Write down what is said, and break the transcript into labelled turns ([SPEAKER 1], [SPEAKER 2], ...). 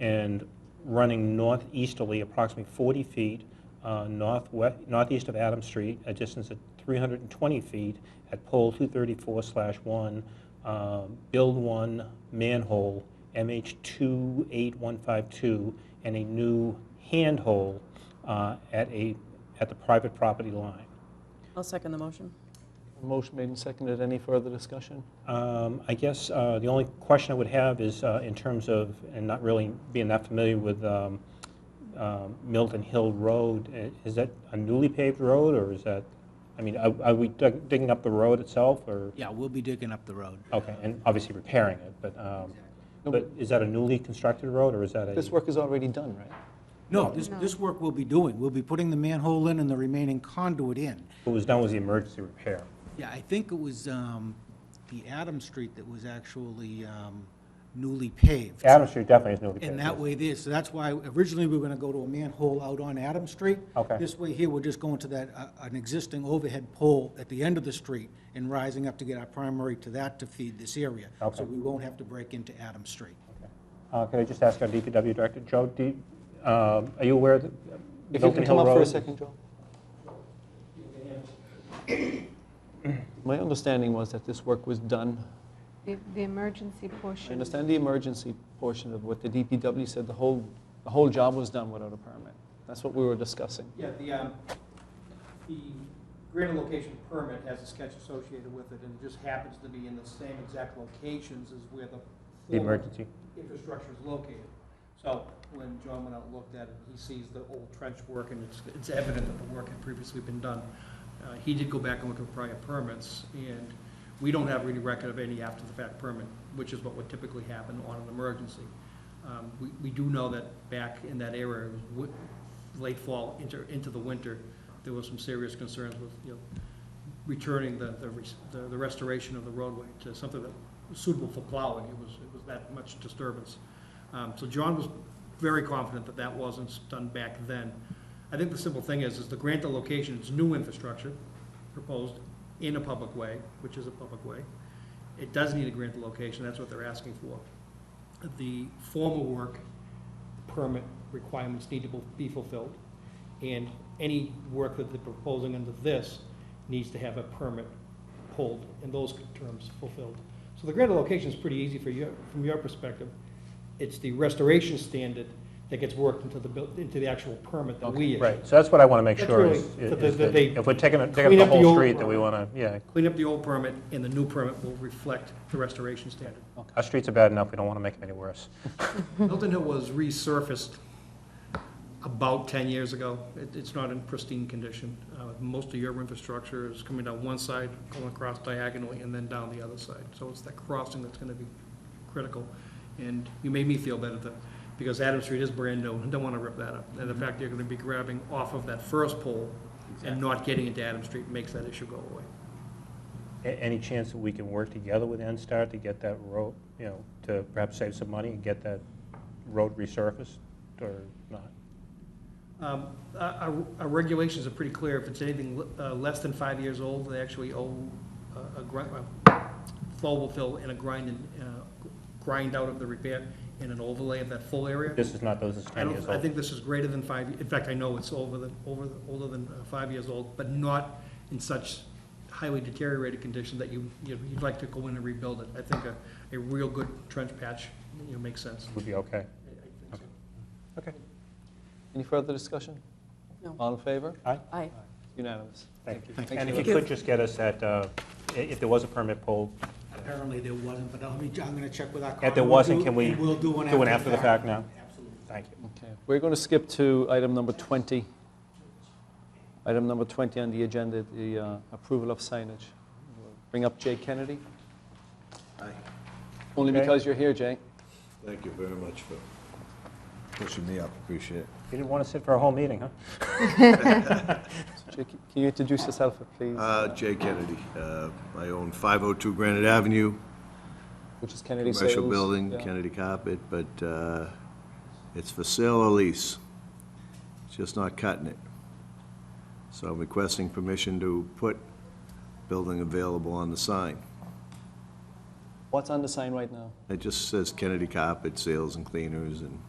[SPEAKER 1] and running northeasterly approximately 40 feet uh, northwest, northeast of Adams Street, a distance of 320 feet at pole 234/1, um, build one manhole, MH28152, and a new handhole uh, at a, at the private property line.
[SPEAKER 2] I'll second the motion.
[SPEAKER 3] Motion made and seconded. Any further discussion?
[SPEAKER 1] Um, I guess uh, the only question I would have is uh, in terms of, and not really being that familiar with um, um, Milton Hill Road, i- is that a newly paved road, or is that, I mean, are are we dig- digging up the road itself, or?
[SPEAKER 4] Yeah, we'll be digging up the road.
[SPEAKER 1] Okay, and obviously repairing it, but, um,
[SPEAKER 3] No,
[SPEAKER 1] but is that a newly constructed road, or is that a?
[SPEAKER 3] This work is already done, right?
[SPEAKER 4] No, this, this work we'll be doing, we'll be putting the manhole in and the remaining conduit in.
[SPEAKER 1] What was done was the emergency repair.
[SPEAKER 4] Yeah, I think it was um, the Adam Street that was actually um, newly paved.
[SPEAKER 1] Adams Street definitely is newly paved.
[SPEAKER 4] And that way there, so that's why originally we were gonna go to a manhole out on Adam Street.
[SPEAKER 1] Okay.
[SPEAKER 4] This way here, we're just going to that, uh, an existing overhead pole at the end of the street and rising up to get our primary to that to feed this area.
[SPEAKER 1] Okay.
[SPEAKER 4] So we won't have to break into Adam Street.
[SPEAKER 1] Uh, Could I just ask our DPW director, Joe, do, you- um, are you aware that
[SPEAKER 3] If you
[SPEAKER 1] Milton
[SPEAKER 3] can come
[SPEAKER 1] Hill
[SPEAKER 3] up for a
[SPEAKER 1] Road?
[SPEAKER 3] second, Joel. My understanding was that this work was done.
[SPEAKER 5] The, the emergency
[SPEAKER 3] I
[SPEAKER 5] portion.
[SPEAKER 3] understand the emergency portion of what the DPW said, the whole, the whole job was done without a permit. That's what we were discussing.
[SPEAKER 6] Yeah, the, um, the greater location permit has a sketch associated with it, and it just happens to be in the same exact locations as where the.
[SPEAKER 1] The
[SPEAKER 6] former
[SPEAKER 1] emergency?
[SPEAKER 6] Infrastructure is located. So when John went out and looked at it, he sees the old trench work, and it's, it's evident that the work had previously been done. Uh, he did go back and look at prior permits, and we don't have any record of any after-the-fact permit, which is what would typically happen on an emergency. Um, We, we do know that back in that era, w- late fall into, into the winter, there was some serious concerns with, you know, returning the, the res- the the restoration of the roadway to something that was suitable for plowing. It was, it was that much disturbance. Um, So John was very confident that that wasn't done back then. I think the simple thing is, is to grant the location, it's new infrastructure proposed in a public way, which is a public way. It does need to grant the location, that's what they're asking for. The formal work permit requirements need to be fulfilled, and any work that they're proposing under this needs to have a permit pulled and those terms fulfilled. So the granted location is pretty easy for you, from your perspective. It's the restoration standard that gets worked into the, buil- into the actual permit that we issue.
[SPEAKER 1] Right, so that's what I want to make
[SPEAKER 6] That's
[SPEAKER 1] sure
[SPEAKER 6] really-
[SPEAKER 1] is,
[SPEAKER 6] that
[SPEAKER 1] is
[SPEAKER 6] they-
[SPEAKER 1] that
[SPEAKER 6] they
[SPEAKER 1] if we're taking, a- taking
[SPEAKER 6] clean
[SPEAKER 1] up
[SPEAKER 6] up
[SPEAKER 1] the
[SPEAKER 6] the
[SPEAKER 1] whole
[SPEAKER 6] old
[SPEAKER 1] street, that we
[SPEAKER 6] road.
[SPEAKER 1] want to, yeah.
[SPEAKER 6] Clean up the old permit, and the new permit will reflect the restoration standard.
[SPEAKER 1] Our streets are bad enough, we don't want to make them any worse.
[SPEAKER 6] Milton Hill was resurfaced about 10 years ago. It- It's not in pristine condition. Uh, Most of your infrastructure is coming down one side, going across diagonally, and then down the other side. So it's that crossing that's going to be critical. And you made me feel better, though, because Adam Street is brand new, and don't want to rip that up. And the fact you're going to be grabbing off of that first pole and not getting into Adam Street makes that issue go away.
[SPEAKER 1] A- Any chance that we can work together with NSTAR to get that road, you know, to perhaps save some money and get that road resurfaced or not?
[SPEAKER 6] Um, Our our- our regulations are pretty clear. If it's anything le- uh, less than five years old, they actually owe uh, a- a grind, full will fill and a grind and, uh, grind out of the repair and an overlay of that full area.
[SPEAKER 1] This is not, those is
[SPEAKER 6] I
[SPEAKER 1] 10 years
[SPEAKER 6] don't, I
[SPEAKER 1] old.
[SPEAKER 6] think this is greater than five, in fact, I know it's over than, over, the- older than uh, five years old, but not in such highly deteriorated condition that you, you'd you'd like to go in and rebuild it. I think a, a real good trench patch, you know, makes sense.
[SPEAKER 1] Would be okay.
[SPEAKER 6] I- I think so.
[SPEAKER 1] Okay.
[SPEAKER 3] Any further discussion?
[SPEAKER 2] No.
[SPEAKER 3] All in favor?
[SPEAKER 2] Aye.
[SPEAKER 3] Unanimous.
[SPEAKER 1] Thank
[SPEAKER 3] you.
[SPEAKER 1] And if
[SPEAKER 3] Lou.
[SPEAKER 1] you could just get us that, uh, i- if there was a permit pulled,
[SPEAKER 4] Apparently there wasn't, but I'll be, I'm gonna check with our.
[SPEAKER 1] If there
[SPEAKER 4] con-
[SPEAKER 1] wasn't,
[SPEAKER 4] we'll do-
[SPEAKER 1] can we
[SPEAKER 4] and We'll do one after the fact.
[SPEAKER 1] do an after the fact now?
[SPEAKER 4] Absolutely.
[SPEAKER 1] Thank you.
[SPEAKER 3] Okay, we're going to skip to item number 20. Item number 20 on the agenda, the uh, approval of signage. We'll Bring up Jay Kennedy. Only
[SPEAKER 1] Okay.
[SPEAKER 3] because you're here, Jay.
[SPEAKER 7] Thank you very much for pushing me up, appreciate it.
[SPEAKER 1] You didn't want to sit for a whole meeting, huh?
[SPEAKER 3] So Jay, Can you introduce yourself, please?
[SPEAKER 7] Uh, Jay Kennedy, uh, I own 502 Granite Avenue,
[SPEAKER 3] Which is Kennedy Sales.
[SPEAKER 7] commercial building,
[SPEAKER 3] yeah.
[SPEAKER 7] Kennedy Carpet, but uh, it's for sale or lease. It's just not cutting it. So I'm requesting permission to put building available on the sign.
[SPEAKER 3] What's on the sign right now?
[SPEAKER 7] It just says Kennedy Carpet Sales and Cleaners and